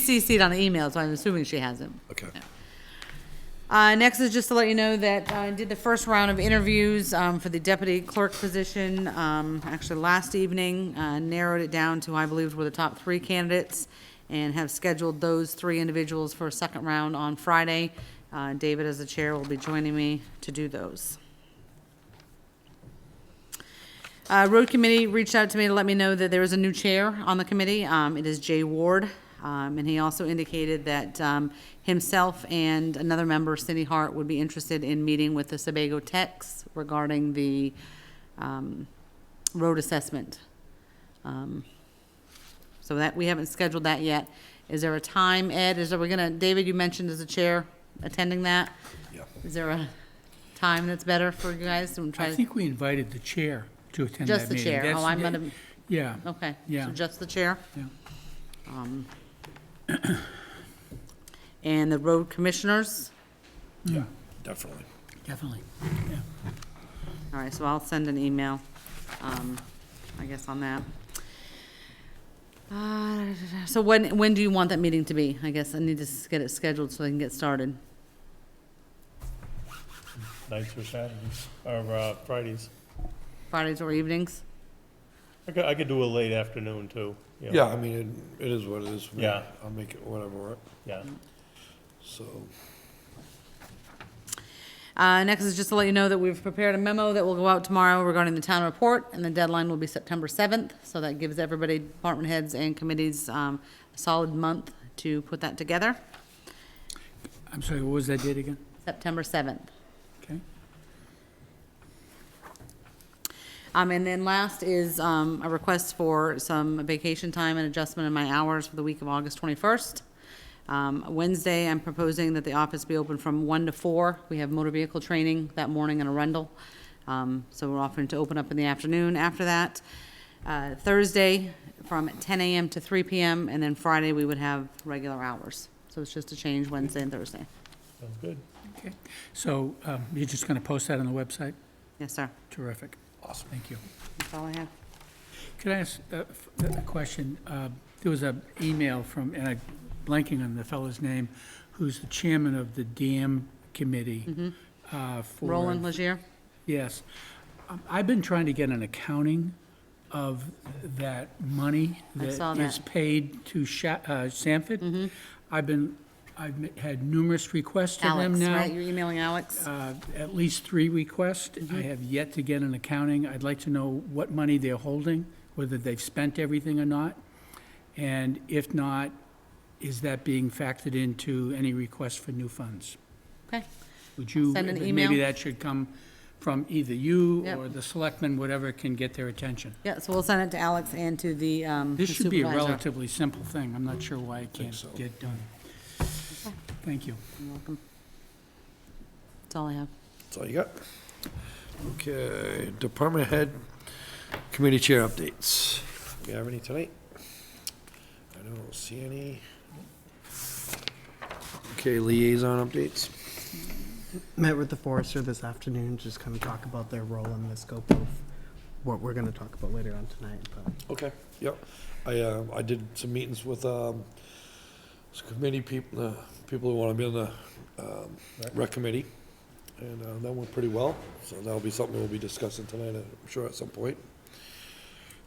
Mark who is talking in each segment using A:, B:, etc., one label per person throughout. A: CC'd on the email, so I'm assuming she hasn't.
B: Okay.
A: Uh, next is just to let you know that I did the first round of interviews, um, for the deputy clerk position, um, actually last evening. Uh, narrowed it down to, who I believed, were the top three candidates and have scheduled those three individuals for a second round on Friday. Uh, David, as the chair, will be joining me to do those. Uh, Road Committee reached out to me to let me know that there is a new chair on the committee. Um, it is Jay Ward. Um, and he also indicated that, um, himself and another member, Cindy Hart, would be interested in meeting with the Sebago Techs regarding the, um, road assessment. Um, So that, we haven't scheduled that yet. Is there a time, Ed? Is, are we gonna, David, you mentioned as a chair attending that?
B: Yeah.
A: Is there a time that's better for you guys? I'm
C: I
A: trying to-
C: think we invited the chair to attend
A: Just
C: that meeting.
A: the chair.
C: That's-
A: Oh, I'm gonna-
C: Yeah,
A: Okay.
C: Yeah.
A: So just the chair? Um,
C: yeah.
A: And the road commissioners?
C: Yeah,
B: Definitely.
C: mm, definitely.
A: All right, so I'll send an email, um, I guess on that. Uh, So when, when do you want that meeting to be? I guess I need to s- get it scheduled so I can get started.
D: nights or Saturdays, or uh, Fridays.
A: Fridays or evenings?
D: I could, I could do a late afternoon too. you know.
B: Yeah, I mean, it, it is what it is. for me.
D: Yeah.
B: I'll make it whatever, work.
D: Yeah,
B: so,
A: Uh, next is just to let you know that we've prepared a memo that will go out tomorrow regarding the town report, and the deadline will be September seventh, so that gives everybody, department heads and committees, um, a solid month to put that together,
C: I'm sorry, what was that date again?
A: September seventh.
C: Okay.
A: Um, and then last is, um, a request for some vacation time and adjustment in my hours for the week of August twenty-first. Um, Wednesday, I'm proposing that the office be open from one to four. We have motor vehicle training that morning in Arundel. Um, so we're offering to open up in the afternoon after that. Uh, Thursday, from ten AM to three PM, and then Friday, we would have regular hours. So it's just a change Wednesday and Thursday.
D: sounds good.
C: Okay. So um, you're just going to post that on the website?
A: Yes, sir.
C: Terrific. Awesome. Thank you.
A: That's all I have.
C: Could I ask a f- a question? Uh, There was an email from, and I'm blanking on the fellow's name, who's the chairman of the dam committee. uh,
A: Mm-hmm.
C: for-
A: Roland Legier?
C: Yes. Um, I've been trying to get an accounting of that money
A: I saw
C: that is
A: that. Mm-hmm.
C: paid to Sha- uh, Sanford. I've been, I've m- had numerous requests to them
A: Alex, right? Mm-hmm.
C: now.
A: You're emailing Alex?
C: uh, At least three requests. I have yet to get an accounting. I'd like to know what money they're holding, whether they've spent everything or not. And if not, is that being factored into any request for new funds?
A: Okay.
C: Would you,
A: send an
C: maybe
A: email.
C: that should come from either you
A: Yep.
C: or the selectmen, whatever can get their attention.
A: Yeah, so we'll send it to Alex and to the um,
C: This should be a
A: supervisor.
C: relatively simple thing. I'm not sure why it can't
B: so.
C: get done. Thank you.
A: You're welcome. That's all I have.
B: that's all you got. Okay, department head, committee chair updates. You have any tonight? I don't see any. Okay, liaison updates.
E: Met with the forester this afternoon, just kind of talk about their role in the scope of what we're gonna talk about later on tonight, but.
B: Okay, yep. I, uh, I did some meetings with, um, some committee people, uh, people who wanna be on the, um, rec committee. And, uh, that went pretty well, so that'll be something we'll be discussing tonight, I'm sure at some point.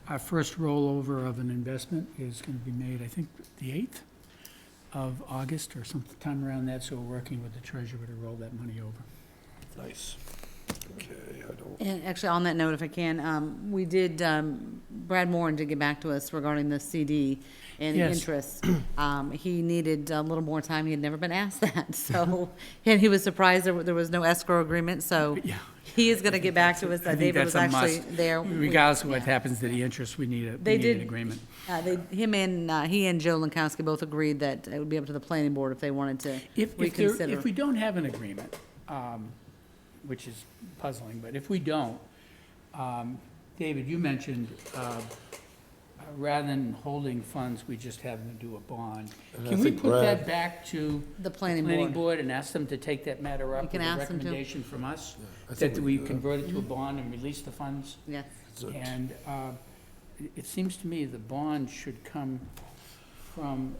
C: Our first rollover of an investment is going to be made, I think, the 8th of August or sometime around that, so we're working with the treasurer to roll that money over.
B: Nice. Okay, I don't,
A: And actually, on that note, if I can, um, we did, um, Brad Moore did get back to us regarding the CD and the
C: Yes.
A: interest. Um, He needed a little more time. He had never been asked that, so, and he was surprised there wa- there was no escrow agreement, so
C: Yeah.
A: he is going to get back to us.
C: I
A: that
C: think
A: David was
C: that's a
A: actually
C: must.
A: there. We-
C: Regardless of what
A: yeah.
C: happens to the interest, we need a,
A: They
C: we need an
A: did-
C: agreement.
A: Uh, They, him and, uh, he and Joe Lankowski both agreed that it would be up to the planning board if they wanted to
C: If, if, there-
A: reconsider.
C: if we don't have an agreement, um, which is puzzling, but if we don't, um, David, you mentioned, uh, rather than holding funds, we just have them do a bond.
B: And I
C: Can we
B: think
C: put
B: Brad-
C: that back to
A: The planning
C: planning
A: board.
C: board and ask them to take that matter
A: We
C: up
A: can
C: with a
A: ask them to. Mm-hmm.
C: recommendation from us?
B: I think
C: That
B: we
C: we
B: can do that.
C: convert it to a bond and release the funds?
A: Yes.
B: it's a-
C: And uh, it- it seems to me the bond should come from